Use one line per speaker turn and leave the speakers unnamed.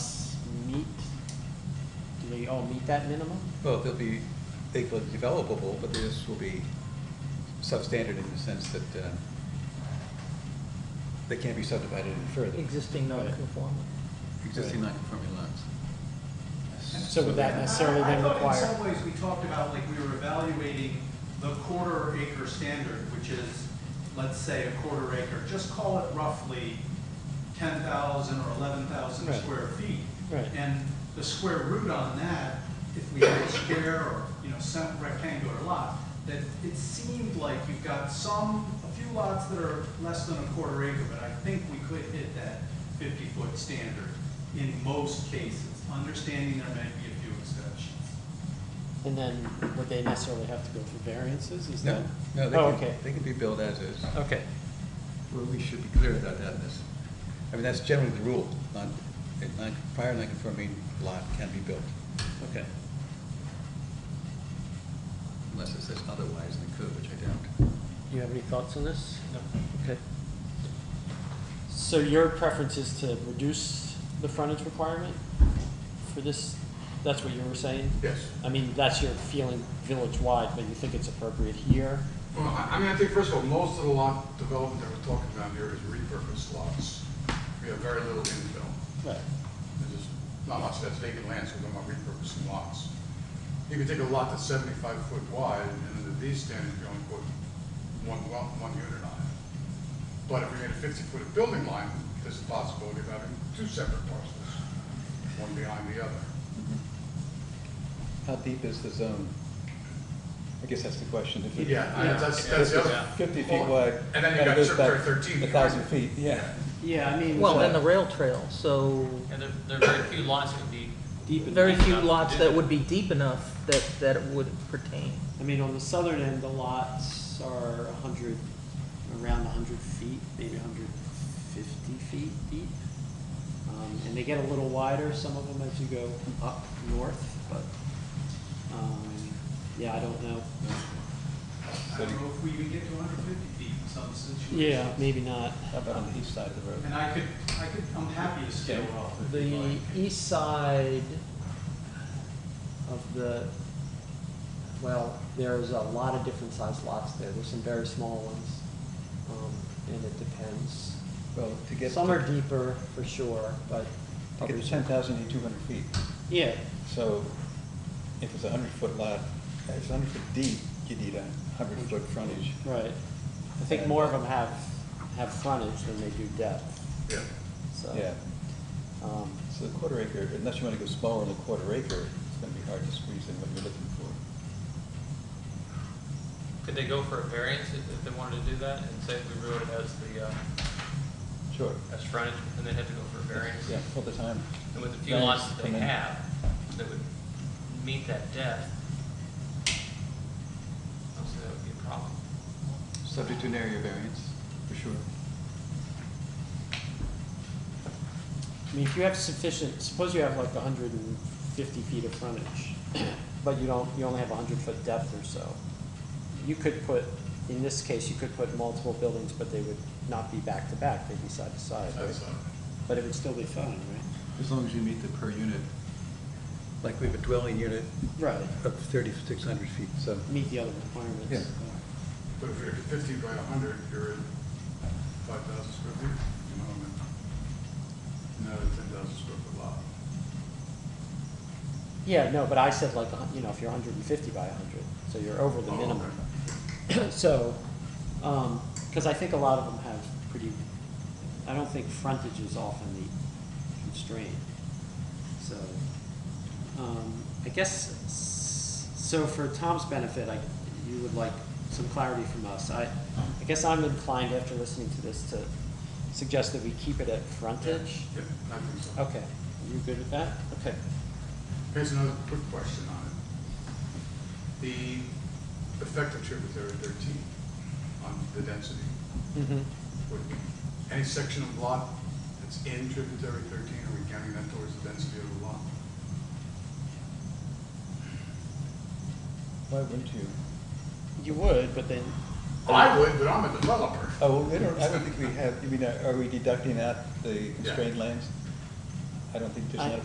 all meet that minimum?
Well, they'll be, they will be developable, but this will be substandard in the sense that uh, they can't be subdivided any further.
Existing non-conforming.
Existing non-conforming lots.
So would that necessarily then
I
require-
thought in some ways we talked about, like, we were evaluating the quarter acre standard, which is, let's say, a quarter acre, just call it roughly ten thousand or eleven thousand
Right.
square feet.
Right.
And the square root on that, if we had a square or, you know, some rectangular lot, that it seemed like you've got some, a few lots that are less than a quarter acre, but I think we could hit that fifty-foot standard in most cases, understanding there may be a few exceptions.
And then would they necessarily have to go through variances, is that?
No, no,
Oh,
they
okay.
can, they can be billed as is.
Okay,
Well, we should be clear about that in this. I mean, that's generally the rule, non, a non- prior non-conforming lot can be built,
okay.
unless it says otherwise in the code, which I doubt.
Do you have any thoughts on this? Okay.
So your preference is to reduce the frontage requirement for this? That's what you were saying?
Yes.
I mean, that's your feeling village-wide, but you think it's appropriate here?
Well, I I mean, I think, first of all, most of the lot development that we're talking about here is repurposed lots. We have very little infill.
Right.
There's just not much that's vacant land, so we're talking about repurposing lots. You could take a lot that's seventy-five foot wide, and under these standards, you only put one well, one unit on it. But if we made a fifty-foot building line, there's a possibility of having two separate parcels, one behind the other.
How deep is the zone? I guess that's the question. If it-
Yeah, I- that's, that's the other.
Fifty feet wide.
And then you
that
got
goes
Circuit
back
Thirteen.
A thousand feet, yeah.
Yeah, I mean.
Well, and the rail trail, so
And there, there are very few lots that would be deep enough.
very few
to
lots
do
that would be deep enough that, that it would pertain.
I mean, on the southern end, the lots are a hundred, around a hundred feet, maybe hundred fifty feet deep. Um, and they get a little wider, some of them as you go up north, but, um, yeah, I don't know.
I don't know if we even get to hundred fifty feet in some situations.
Yeah, maybe not.
How about on the east side of the road?
And I could, I could, I'm happy to scale it off if you'd
The
like.
east side of the, well, there's a lot of different sized lots there. There's some very small ones, um, and it depends.
Well, to get,
Some are
to
deeper for sure, but.
get to ten thousand, you need two hundred feet.
Yeah,
So if it's a hundred foot lot, if it's a hundred foot deep, you need a hundred foot frontage.
right. I think more of them have, have frontage than they do depth,
Yeah.
so.
Yeah,
Um,
so the quarter acre, unless you want to go smaller than a quarter acre, it's going to be hard to squeeze in what you're looking for.
Could they go for a variance if, if they wanted to do that and say we rule it as the, uh,
Sure.
as frontage and then have to go for a variance?
Yeah, all the time.
And with the few
Variance
lots that
come
they
in.
have, that would meet that depth, obviously that would be a problem.
Subject to an area variance, for sure.
I mean, if you have sufficient, suppose you have like hundred and fifty feet of frontage, but you don't, you only have hundred foot depth or so. You could put, in this case, you could put multiple buildings, but they would not be back to back, they'd be side to side, right?
That's, uh,
But it would still be fine, right?
As long as you meet the per unit. Like we have a dwelling unit
Right.
of thirty-six hundred feet, so.
Meet the other requirements.
Yeah.
But if you're fifty by a hundred, you're at five thousand square feet, you know, and not a ten thousand square foot lot.
Yeah, no, but I said like, a hun- you know, if you're hundred and fifty by hundred, so you're over the
Oh, okay.
minimum. So, um 'cause cause I think a lot of them have pretty, I don't think frontage is often the constraint, so. Um, I guess, s- so for Tom's benefit, I, you would like some clarity from us. I, I guess I'm inclined after listening to this to suggest that we keep it at frontage.
Yeah, I think so.
Okay, you good with that? Okay.
Here's another quick question on it. The effective tributary thirteen on the density,
Mm-hmm.
would any section of lot that's in tributary thirteen, are we counting that towards the density of the lot?
Why wouldn't you?
You would, but then.
I would, but I'm a developer.
Oh, well, we don't, I uh, don't think we have, you mean, are we deducting out the constrained lands? I don't think there's
I-
not a